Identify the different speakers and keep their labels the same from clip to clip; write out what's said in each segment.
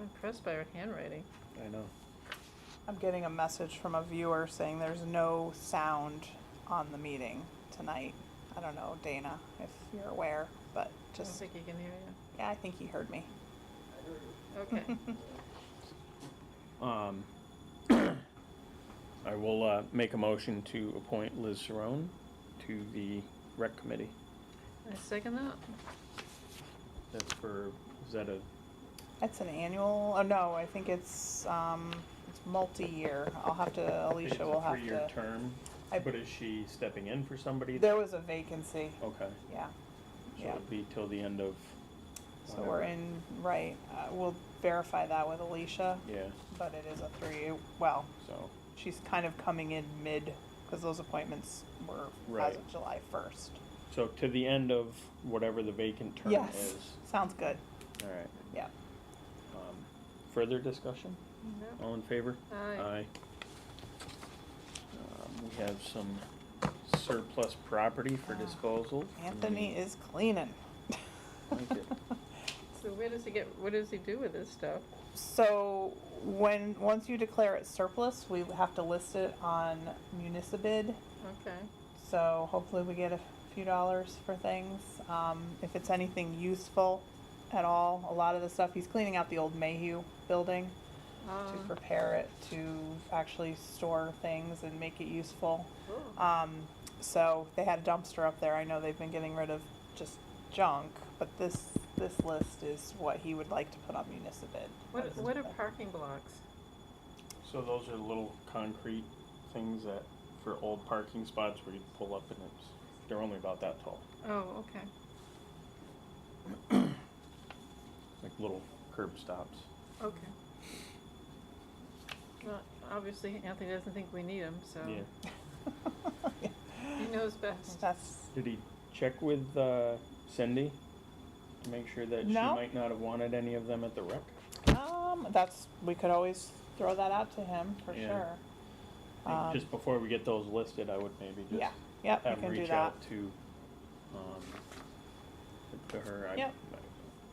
Speaker 1: impressed by her handwriting.
Speaker 2: I know.
Speaker 3: I'm getting a message from a viewer saying there's no sound on the meeting tonight. I don't know, Dana, if you're aware, but
Speaker 1: I don't
Speaker 3: just,
Speaker 1: think he can hear you.
Speaker 3: yeah, I think he heard me.
Speaker 1: Okay.
Speaker 2: Um, I will, uh, make a motion to appoint Liz Saron to the rec committee.
Speaker 1: I second that.
Speaker 2: That's for, is that a,
Speaker 3: That's an annual, oh no, I think it's, um, it's multi-year. I'll have to,
Speaker 2: I think it's
Speaker 3: Alicia will
Speaker 2: a
Speaker 3: have
Speaker 2: three-year
Speaker 3: to.
Speaker 2: term?
Speaker 3: I-
Speaker 2: But is she stepping in for somebody?
Speaker 3: There was a vacancy,
Speaker 2: Okay,
Speaker 3: yeah,
Speaker 2: so
Speaker 3: yeah.
Speaker 2: it'll be till the end of.
Speaker 3: So we're
Speaker 2: whenever.
Speaker 3: in, right, uh, we'll verify that with Alicia,
Speaker 2: Yeah,
Speaker 3: but it is a three, well,
Speaker 2: so,
Speaker 3: she's kind of coming in mid, because those appointments were as
Speaker 2: Right.
Speaker 3: of July first.
Speaker 2: so to the end of whatever the vacant term is.
Speaker 3: Yes, sounds good,
Speaker 2: All right,
Speaker 3: yeah.
Speaker 2: um, further discussion?
Speaker 1: Yep.
Speaker 2: All in favor?
Speaker 1: Aye.
Speaker 2: Um, We have some surplus property for
Speaker 3: Ah,
Speaker 2: disposal.
Speaker 3: Anthony is cleaning.
Speaker 2: Thank you.
Speaker 1: So where does he get, what does he do with this stuff?
Speaker 3: So when, once you declare it surplus, we have to list it on Municipid.
Speaker 1: Okay.
Speaker 3: So hopefully we get a few dollars for things. Um, if it's anything useful at all, a lot of the stuff, he's cleaning out the old Mayhew building to
Speaker 1: Um,
Speaker 3: prepare it to actually store things and make it useful.
Speaker 1: cool.
Speaker 3: Um, so they had a dumpster up there. I know they've been getting rid of just junk, but this this list is what he would like to put on Municipid.
Speaker 1: What, what are parking blocks?
Speaker 2: So those are little concrete things that, for old parking spots where you pull up and it's, they're only about that tall,
Speaker 1: Oh, okay.
Speaker 2: like little curb stops.
Speaker 1: Okay. Well, obviously Anthony doesn't think we need him, so
Speaker 2: Yeah.
Speaker 1: he knows best.
Speaker 3: That's
Speaker 2: Did he check with uh, Cindy to make sure that she
Speaker 3: No.
Speaker 2: might not have wanted any of them at the rec?
Speaker 3: um that's we could always throw that out to him for
Speaker 2: Yeah.
Speaker 3: sure.
Speaker 2: I think
Speaker 3: Um,
Speaker 2: Just before we get those listed, I would maybe just.
Speaker 3: Yeah. Yep,
Speaker 2: have
Speaker 3: we can do
Speaker 2: reach
Speaker 3: that.
Speaker 2: out to, um, to her. I,
Speaker 3: Yep.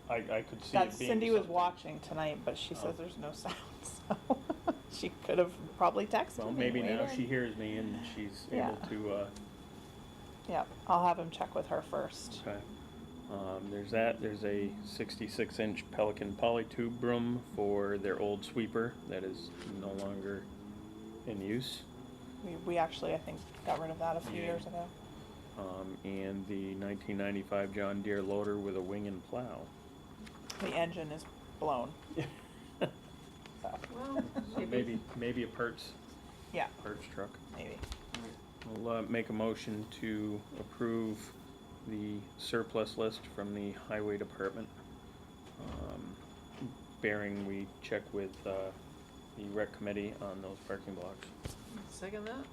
Speaker 2: I, I could see
Speaker 3: That
Speaker 2: it being
Speaker 3: Cindy was
Speaker 2: something.
Speaker 3: watching tonight, but she
Speaker 2: Oh.
Speaker 3: says there's no sound, so she could have probably texted
Speaker 2: Well,
Speaker 3: me
Speaker 2: maybe now
Speaker 3: later.
Speaker 2: she hears me and she's
Speaker 3: Yeah.
Speaker 2: able to. Uh,
Speaker 3: Yep, I'll have him check with her first.
Speaker 2: okay. Um, there's that. There's a 66 inch Pelican polytube broom for their old sweeper that is no longer in use.
Speaker 3: We, we actually I think got rid of that a few
Speaker 2: Yeah.
Speaker 3: years ago.
Speaker 2: Um, and the 1995 John Deere loader with a wing and plow.
Speaker 3: The engine is blown. So,
Speaker 1: Well,
Speaker 2: So maybe maybe a parts
Speaker 3: yeah,
Speaker 2: parts truck.
Speaker 3: maybe.
Speaker 2: I'll uh, make a motion to approve the surplus list from the highway department. um, Bearing we check with uh, the rec committee on those parking blocks.
Speaker 1: Second that?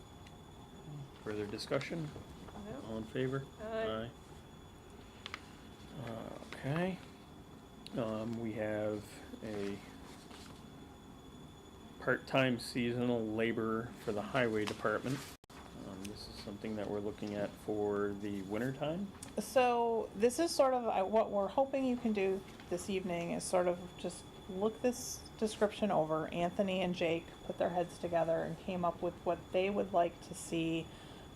Speaker 2: Further discussion?
Speaker 1: Yep.
Speaker 2: All in favor?
Speaker 1: Aye.
Speaker 2: Uh, Okay. Um, We have a part-time seasonal laborer for the highway department. Um, This is something that we're looking at for the winter time.
Speaker 3: So this is sort of I- what we're hoping you can do this evening is sort of just look this description over. Anthony and Jake put their heads together and came up with what they would like to see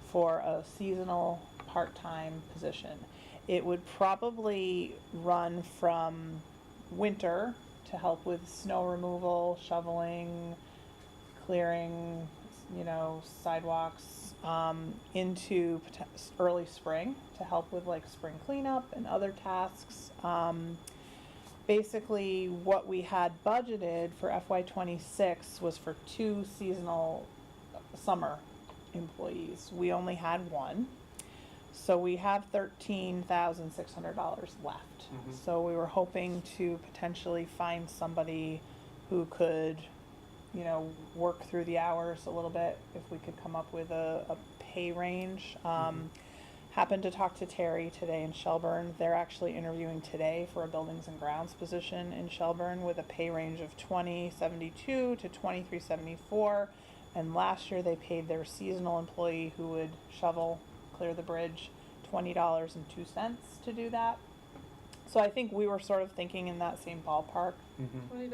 Speaker 3: for a seasonal part-time position. It would probably run from winter to help with snow removal, shoveling, clearing, you know, sidewalks um, into pot- early spring to help with like spring cleanup and other tasks. Um, basically, what we had budgeted for FY26 was for two seasonal summer employees. We only had one. So we have thirteen thousand six hundred dollars left.
Speaker 2: Mhm.
Speaker 3: So we were hoping to potentially find somebody who could, you know, work through the hours a little bit if we could come up with a, a pay range. Um, happened to talk to Terry today in Shelburne. They're actually interviewing today for a buildings and grounds position in Shelburne with a pay range of twenty seventy two to twenty three seventy four. And last year they paid their seasonal employee who would shovel, clear the bridge, twenty dollars and two cents to do that. So I think we were sort of thinking in that same ballpark.
Speaker 1: What do you